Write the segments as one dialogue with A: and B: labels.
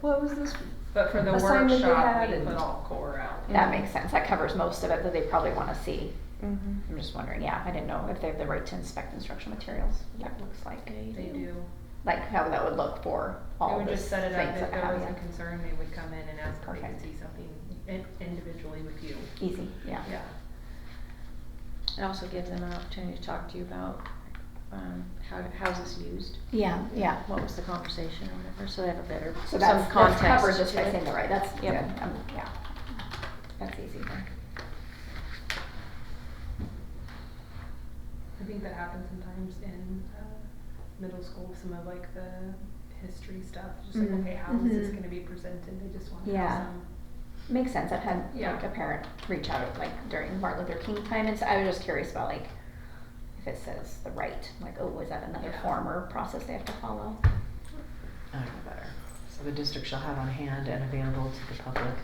A: What was this?
B: But for the
A: Assignment they
B: workshop,
A: had
B: we
A: and-
B: put all core out.
C: That
A: Mhm.
C: makes sense. That covers most of it that they probably want to see. I'm just wondering, yeah, I didn't know if they have the right to inspect instructional materials, what that looks like.
B: They do.
C: Like how that would look for
B: They
C: all
B: would
C: the
B: just set it up
C: things
B: if
C: that
B: there
C: have,
B: was a
C: yeah.
B: concern, they would come in and ask if they could
C: Perfect.
B: see something in- individually with you.
C: Easy, yeah.
B: Yeah.
D: And also give them an opportunity to talk to you about, um, how, how's this used?
C: Yeah, yeah.
D: What was the conversation or whatever, so they have a better,
C: So
D: some
C: that's, that's
D: context.
C: covered just
D: to
C: by
D: it.
C: saying the right, that's good,
D: Yep.
C: um, yeah. That's easy then.
B: I think that happens sometimes in uh, middle school, some of like the history stuff, just like,
C: Mhm.
B: okay, how is this
A: Mhm.
B: gonna be presented? They just want to
C: Yeah.
B: have some.
C: Makes sense. I've had
B: Yeah.
C: like a parent reach out like during Martin Luther King time, and so I was just curious about like if it says the right, like oh, is that another
B: Yeah.
C: form or process they have to follow?
E: I don't know better. So the district shall have on hand and available to the public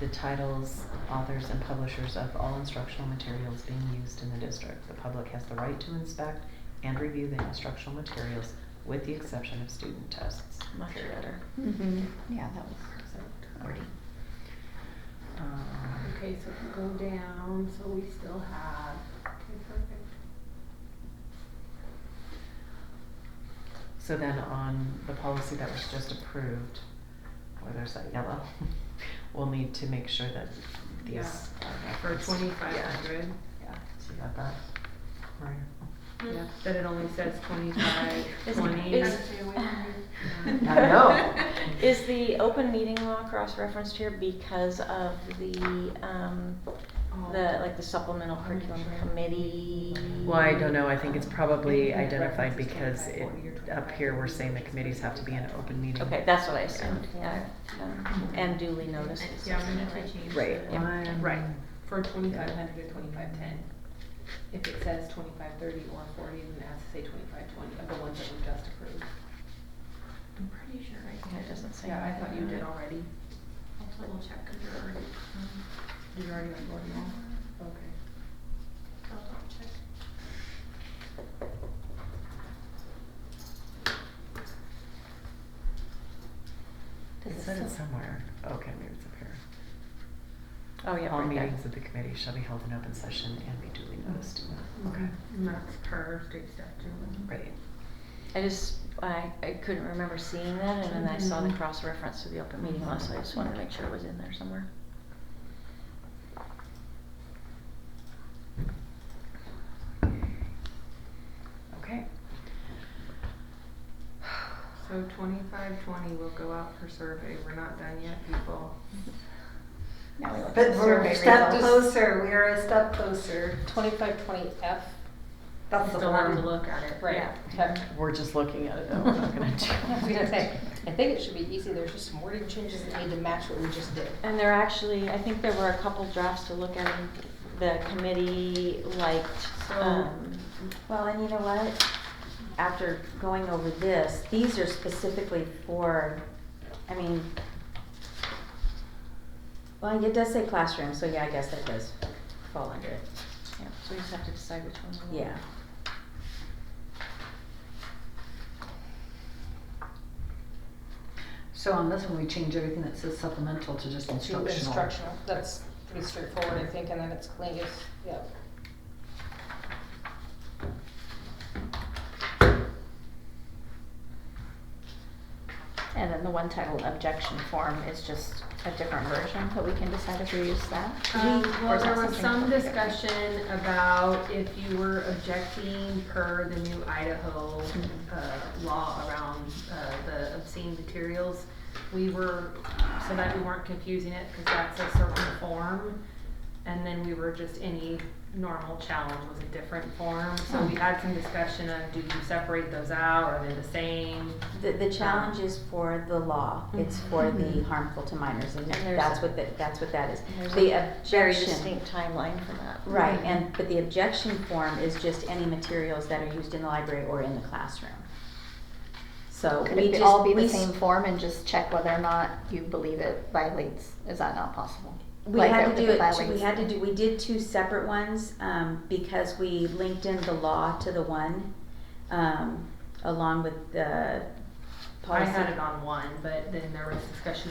E: the titles, authors, and publishers of all instructional materials being used in the district. The public has the right to inspect and review the instructional materials with the exception of student tests.
D: Much
E: Period.
D: better.
C: Mm-hmm. Yeah, that was
E: So,
C: wordy.
E: um,
B: Okay, so if we go down, so we still have, okay, perfect.
E: So then on the policy that was just approved, where there's that yellow, we'll need to make sure that
B: Yeah.
E: these are
B: For
E: referenced.
B: twenty-five
E: Yeah.
B: hundred.
E: Yeah, so you got that, Maria?
B: Yeah, that it only says twenty-five,
D: Is-
B: twenty.
D: is-
E: I know.
D: Is the open meeting law cross-referenced here because of the, um, the, like the supplemental curriculum
B: Oh,
D: committee?
E: Well, I don't know, I think it's probably
B: Internet
E: identified
B: references
E: because it,
B: can't be
E: up here, we're saying the committees have to be in an open meeting.
D: Okay, that's what I assumed, yeah, um, and duly noticed. is
B: Yeah, we need
D: something,
B: to
D: right?
B: change.
E: Right.
B: the-
D: Yeah.
E: One-
B: Right, for twenty-five hundred to twenty-five ten. If it says twenty-five thirty or forty, then it has to say twenty-five twenty of the ones that we just approved.
F: I'm pretty sure I
D: Yeah, it
F: did.
D: doesn't say.
B: Yeah, I thought you did
D: anything.
B: already.
F: I'll double check because you're already. um,
B: Did you already onboard them all? Okay.
F: I'll double check.
C: Does
E: It
C: it
E: said it
C: say-
E: somewhere, okay, maybe it's up here.
D: Oh, yeah,
E: All
D: right there.
E: meetings of the committee shall be held in open session and be duly noticed.
B: Mm-hmm.
E: Okay,
B: And that's per state statute.
E: right.
D: I just, I, I couldn't remember seeing that, and then I saw the
B: Mhm.
D: cross-reference to the open meeting law, so I just wanted to make sure it was in there somewhere.
E: Okay.
B: So twenty-five twenty will go out for survey, we're not done yet, people.
C: Now we look at
A: But
C: the
A: we're a
C: survey
A: step
C: results.
A: closer. We are a step closer.
G: Twenty-five twenty F,
A: That's the
B: Still have to
A: one.
B: look at it.
G: right,
B: Yeah.
G: okay.
E: We're just looking at it though, we're not gonna do.
G: I was gonna say, I think it should be easy, there's just some wording changes that need to match what we just did.
D: And there actually, I think there were a couple drafts to look at, and the committee liked,
B: So-
D: um, well, and you know what? After going over this, these are specifically for, I mean, well, it does say classroom, so yeah, I guess that does fall under it. Yeah, so we just have to decide which one. Yeah.
H: So on this one, we change everything that says supplemental to just
G: To
H: instructional.
G: Instructional, that's pretty straightforward, I think, and then it's clean, it's, yeah.
C: And then the one titled objection form is just a different version, but we can decide if we use that.
I: Uh,
B: Um,
C: Or
B: well,
C: is
B: there
C: that
B: was
C: something
B: some
C: totally different?
B: discussion about if you were objecting per the new Idaho, uh,
C: Mm-hmm.
B: law around, uh, the obscene materials. We were, so that we weren't confusing it, cause that's a certain form. And then we were just any normal challenge was a different form, so we had some discussion on do you separate those out, are they the same?
I: The, the challenge is for the law,
B: Mm-hmm.
I: it's for the harmful to minors, and
D: And there's
I: that's
D: a-
I: what, the- that's what that is.
D: There's
I: The
D: a very
I: objection,
D: distinct timeline for that.
I: right, and, but the objection form is just any materials that are used in the library or in the classroom. So
C: Could
I: we
C: it be-
I: just.
C: all be
I: we
C: the
I: s-
C: same form and just check whether or not you believe it violates? Is that not possible?
I: We
C: Like,
I: had to
C: if
I: do it, two-
C: violates-
I: we had to do, we did two separate ones, um, because we linked in the law to the one, um, along with the,
B: I had
D: Policy.
B: it on one, but then there was discussion